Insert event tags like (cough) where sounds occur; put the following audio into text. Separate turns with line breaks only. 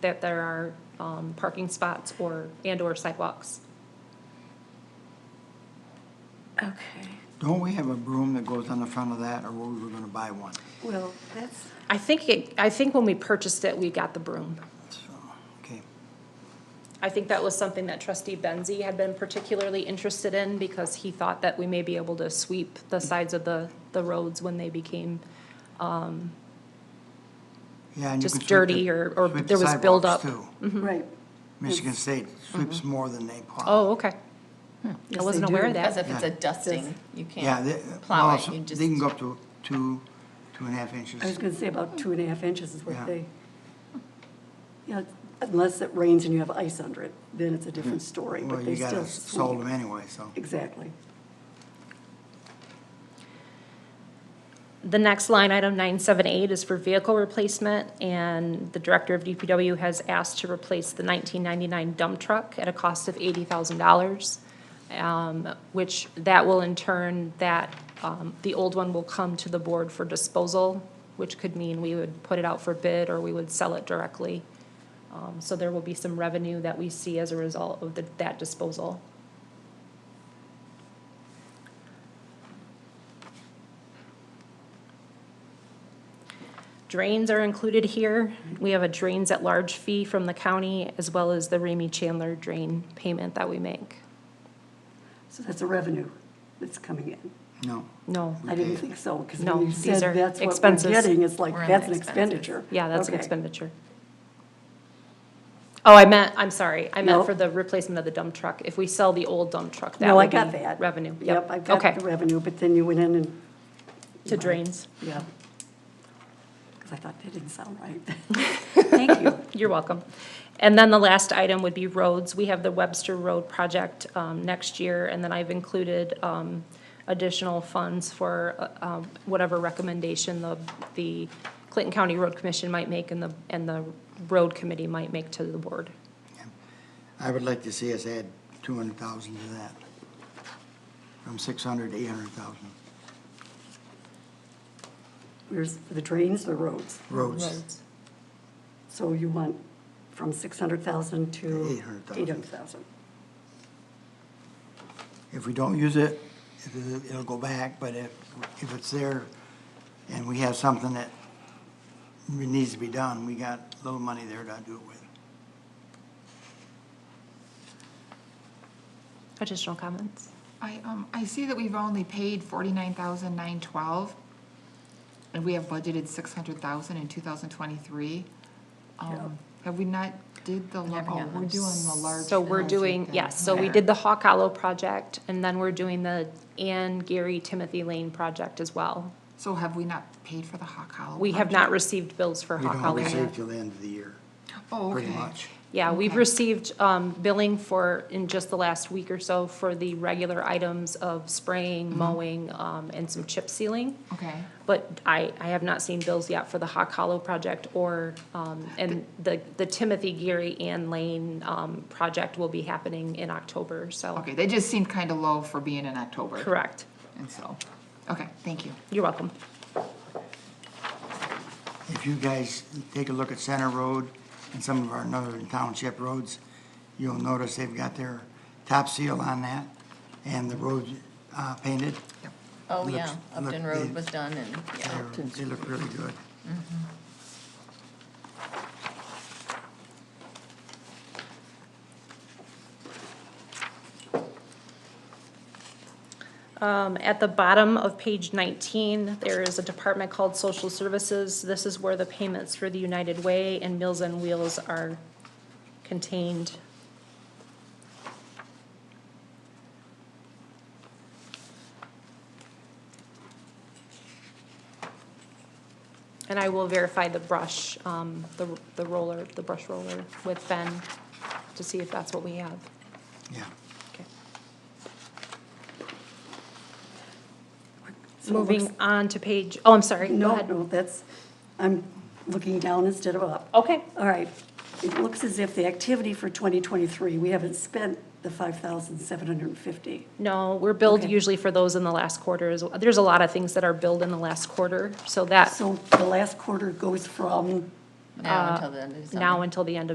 that there are, um, parking spots or, and/or sidewalks.
Okay,
Don't we have a broom that goes on the front of that, or were we gonna buy one?
well, that's,
I think it, I think when we purchased it, we got the broom.
So, okay.
I think that was something that trustee Benzi had been particularly interested in because he thought that we may be able to sweep the sides of the, the roads when they became
Yeah, and you
Just
can sweep the-
dirty or- or
sweep the
there was
sidewalks,
buildup.
too.
Mm-hmm.
right.
Michigan State sweeps more than they plow.
Oh, okay.
Yes,
I
they
wasn't aware
do.
of
Because
that.
if it's a dusting, you
Yeah, they,
can't
well,
plow it,
so
you just.
they can go up to two, two and a half inches.
I was gonna say about two and a half inches is
Yeah.
what they, yeah, unless it rains and you have ice under it, then it's a different story,
Well,
but
you
they still.
gotta s- sold
sweep.
them anyway, so.
Exactly.
The next line item, nine seven eight, is for vehicle replacement, and the director of DPW has asked to replace the nineteen ninety-nine dump truck at a cost of eighty thousand dollars. Um, which that will in turn, that, um, the old one will come to the board for disposal, which could mean we would put it out for bid or we would sell it directly. Um, so there will be some revenue that we see as a result of the, that disposal. Drains are included here. We have a drains at large fee from the county as well as the Ramey Chandler drain payment that we make.
So that's a revenue that's coming in.
No,
No,
I didn't
Okay.
think so, because
No,
when you
these are
said that's what we're
expenses.
getting, it's like,
We're in
that's an
expenses.
expenditure.
yeah, that's an
Okay.
expenditure. Oh, I meant, I'm sorry, I meant
No.
for the replacement of the dump truck. If we sell the old dump truck, that
No, I
would
got
be
that.
revenue.
Yep, I got
Okay,
the revenue, but then you went in and,
to drains.
yeah. Because I thought that didn't sound
(laughs)
right. Thank you.
You're welcome. And then the last item would be roads. We have the Webster Road project um, next year, and then I've included um, additional funds for uh, um, whatever recommendation the, the Clinton County Road Commission might make and the, and the road committee might make to the board.
I would like to see us add two hundred thousand to that. From six hundred to eight hundred thousand
Where's the drains, the roads?
roads.
So you want from 600,000 to
800,000.
800,000?
If we don't use it, it'll- it'll go back, but if, if it's there and we have something that needs to be done, we got a little money there to do it with.
Additional comments?
I, um, I see that we've only paid forty-nine thousand nine twelve, and we have budgeted six hundred thousand in two thousand twenty-three. Um, have we not did the, lar- oh, we're doing the large.
So we're
project
doing,
then.
yes, so we did the Hawk Hollow project, and then we're doing the Ann Gary Timothy Lane project as well.
So have we not paid for the Hawk Hollow?
We have not received bills for
We
Hawk
don't
Hollow yet.
receive till the end of the year,
project? Oh,
pretty
okay.
much.
Yeah, we've
Okay.
received um, billing for, in just the last week or so, for the regular items of
Mm-hmm.
spraying, mowing, um, and some chip sealing.
Okay,
But I, I have not seen bills yet for the Hawk Hollow project or, um, and the, the Timothy Geary and Lane um, project will be happening in October, so.
okay, they just seemed kind of low for being in October.
Correct.
And so, okay, thank you.
You're welcome.
If you guys take a look at Center Road and some of our northern township roads, you'll notice they've got their top seal on that and the road uh, painted.
Oh,
Looks-
yeah, Upton
look,
Road
they-
was done and, yeah.
They're- They look really good.
Um, At the bottom of page 19, there is a department called Social Services. This is where the payments for the United Way and Meals on Wheels are contained. And I will verify the brush, um, the the roller, the brush roller with Ben to see if that's what we have.
Yeah.
Okay.
So it looks-
Moving on to page, oh, I'm sorry, go
No,
ahead.
no, that's, I'm looking down instead of up.
Okay.
All right. It looks as if the activity for 2023, we haven't spent the 5,750.
No, we're billed
Okay.
usually for those in the last quarter. as- There's a lot of things that are billed in the last quarter, so that
So the last quarter goes from
Now until the end of December.
now until the end of